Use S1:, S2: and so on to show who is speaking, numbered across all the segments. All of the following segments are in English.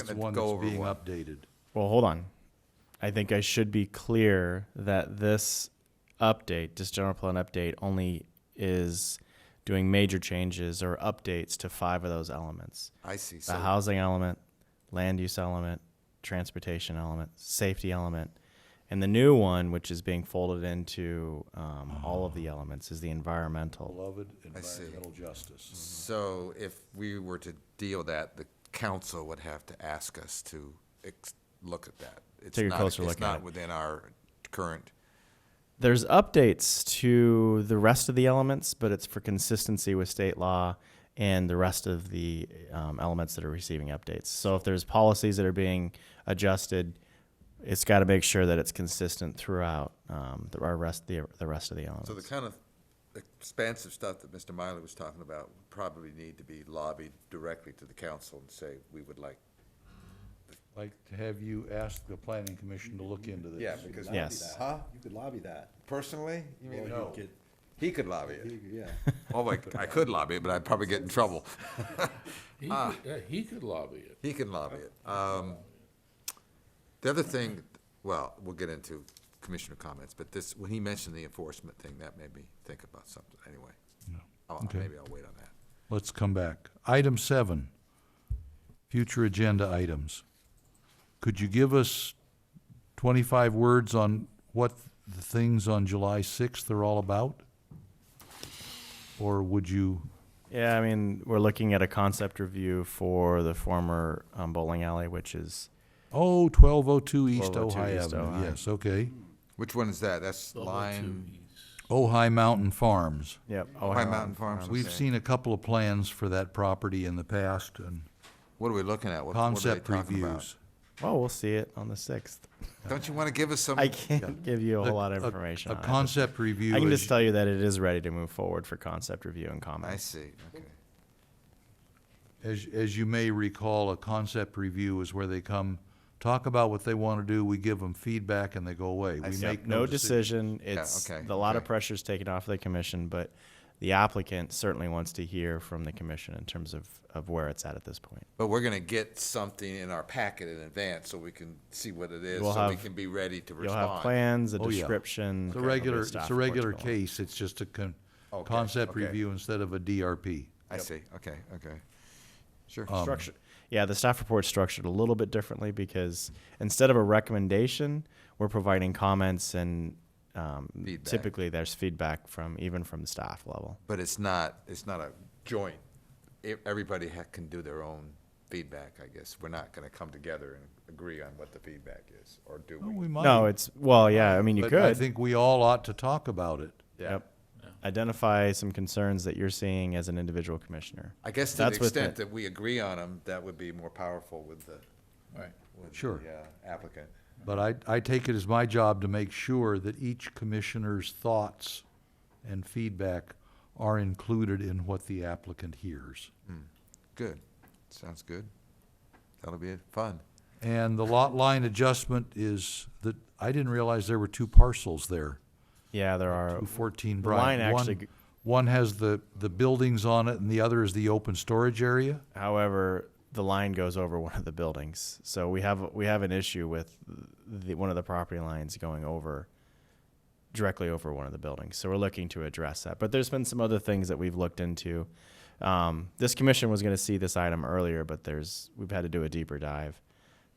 S1: It's
S2: gonna
S1: one
S2: go
S1: that's
S2: over
S1: being
S2: one.
S1: updated.
S3: Well, hold on. I think I should be clear that this update, this general plan update, only is doing major changes or updates to five of those elements.
S2: I see.
S3: The
S2: So,
S3: housing element, land use element, transportation element, safety element. And the new one, which is being folded into um, all of the elements, is the environmental.
S1: Beloved
S2: see.
S1: environmental justice.
S2: so if we were to deal with that, the council would have to ask us to ex- look at that. It's
S3: Take a
S2: not-
S3: closer look at
S2: It's not
S3: it.
S2: within our current,
S3: There's updates to the rest of the elements, but it's for consistency with state law and the rest of the um, elements that are receiving updates. So if there's policies that are being adjusted, it's got to make sure that it's consistent throughout um, the, our rest the, the rest of the elements.
S2: so the kind of expansive stuff that Mr. Miley was talking about would probably need to be lobbied directly to the council and say, we would like.
S1: Like to have you ask the planning commission to look into this.
S2: Yeah, because-
S4: lobby
S3: Yes.
S4: that.
S2: Huh?
S4: You could lobby that.
S2: Personally? You mean,
S1: No.
S4: You could-
S2: he could lobby
S4: you
S2: it.
S4: could- Yeah.
S2: Oh, I, I could lobby it, but I'd probably get in trouble.
S5: He
S1: ah.
S5: could, yeah, he could lobby it.
S2: He can lobby it. Um, The other thing, well, we'll get into commissioner comments, but this, when he mentioned the enforcement thing, that made me think about something, anyway. I'll-
S1: Okay.
S2: Maybe I'll wait on that.
S1: Let's come back. Item seven, future agenda items. Could you give us twenty-five words on what the things on July sixth are all about? Or would you,
S3: Yeah, I mean, we're looking at a concept review for the former um, bowling alley, which is
S1: oh, twelve oh two East
S3: 1202
S1: Ojai
S3: East
S1: Avenue,
S3: Ojai.
S1: yes, okay.
S2: Which one is that? That's
S5: The whole two
S2: Lion,
S5: E's.
S1: Ojai Mountain Farms.
S3: yep.
S2: High Mountain Farms?
S1: We've
S2: Okay.
S1: seen a couple of plans for that property in the past and
S2: What are we looking at? What what are they
S1: concept
S2: talking about?
S1: reviews.
S3: Oh, we'll see it on the sixth.
S2: Don't you want to give us some?
S3: I can't give you a whole lot of
S1: A- a-
S3: information.
S1: A
S3: on it.
S1: concept review
S3: I can
S1: is
S3: just tell you that it is ready to move forward for concept review
S2: I
S3: and comments.
S2: see, okay.
S1: As, as you may recall, a concept review is where they come, talk about what they want to do, we give them feedback, and they go away. We make
S3: no
S1: decision.
S3: decision. It's
S2: okay,
S3: a lot of
S2: okay.
S3: pressure is taken off the commission, but the applicant certainly wants to hear from the commission in terms of, of where it's at at this point.
S2: But we're going to get something in our packet in advance so we can see what it is,
S3: We'll
S2: so we
S3: have-
S2: can be ready to
S3: You'll have
S2: respond.
S3: plans, a
S1: Oh, yeah.
S3: description.
S1: It's a
S3: there'll be
S1: regular,
S3: staff
S1: it's a
S3: reports
S1: regular
S3: going along.
S1: case, it's just a con,
S2: Okay,
S1: concept
S2: okay.
S1: review instead of a DRP.
S2: I see, okay, okay. Sure.
S3: structured. Yeah, the staff report's structured a little bit differently because instead of a recommendation, we're providing comments and um,
S2: Feedback.
S3: typically there's feedback from even from the staff level.
S2: But it's not, it's not a joint, E- everybody ha- can do their own feedback, I guess. We're not gonna come together and agree on what the feedback is, or do
S1: Well,
S2: we?
S1: we might,
S3: No, it's well, yeah. I mean, you
S1: but
S3: could.
S1: I think we all ought to talk about it.
S2: Yeah.
S3: Yep. Identify some concerns that you're seeing as an individual commissioner.
S2: I guess to the
S3: That's with
S2: extent
S3: the-
S2: that we agree on them, that would be more powerful with the,
S5: Right.
S2: with
S1: Sure.
S2: the uh, applicant.
S1: But I, I take it as my job to make sure that each commissioner's thoughts and feedback are included in what the applicant hears.
S2: Good, sounds good. That'll be fun.
S1: And the lot line adjustment is that, I didn't realize there were two parcels there,
S3: Yeah, there are.
S1: two fourteen
S3: the
S1: Bryant.
S3: line
S1: One-
S3: actually g-
S1: One has the, the buildings on it and the other is the open storage area?
S3: However, the line goes over one of the buildings, so we have we have an issue with the, one of the property lines going over directly over one of the buildings. So we're looking to address that. But there's been some other things that we've looked into. Um, this commission was going to see this item earlier, but there's we've had to do a deeper dive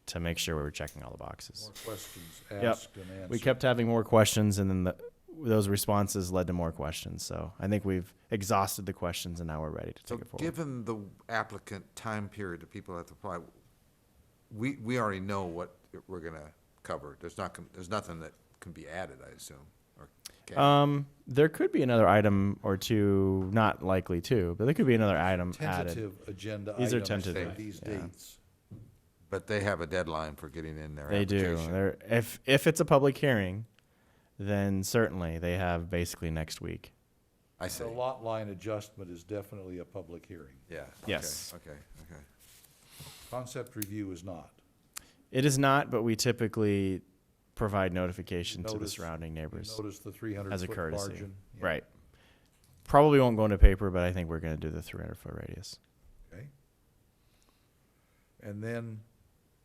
S3: to make sure we were checking all the boxes.
S1: questions
S3: Yep. asked We kept having more questions, and then the, those responses led to more questions. So I think we've exhausted the questions, and now we're ready to
S2: So
S3: take it forward.
S2: given the applicant time period that people have to apply, we, we already know what we're gonna cover. There's not, gon- there's nothing that can be added, I assume, or can.
S3: Um, there could be another item or two, not likely two, but there could be another item added.
S1: Tentative agenda
S3: These are
S1: items for
S3: tentative,
S1: these
S3: yeah.
S1: dates.
S2: But they have a deadline for getting in their
S3: They do.
S2: application.
S3: There, if if it's a public hearing, then certainly they have basically next week.
S2: I see.
S1: The lot line adjustment is definitely a public hearing.
S2: Yeah.
S3: Yes.
S2: Okay, okay, okay.
S1: Concept review is not.
S3: It is not, but we typically provide notification to the
S1: Notice-
S3: surrounding neighbors
S1: Notice the three hundred
S3: as a
S1: foot
S3: courtesy.
S1: margin. Yeah.
S3: Right. Probably won't go into paper, but I think we're going to do the 300 foot radius.
S1: Okay. And then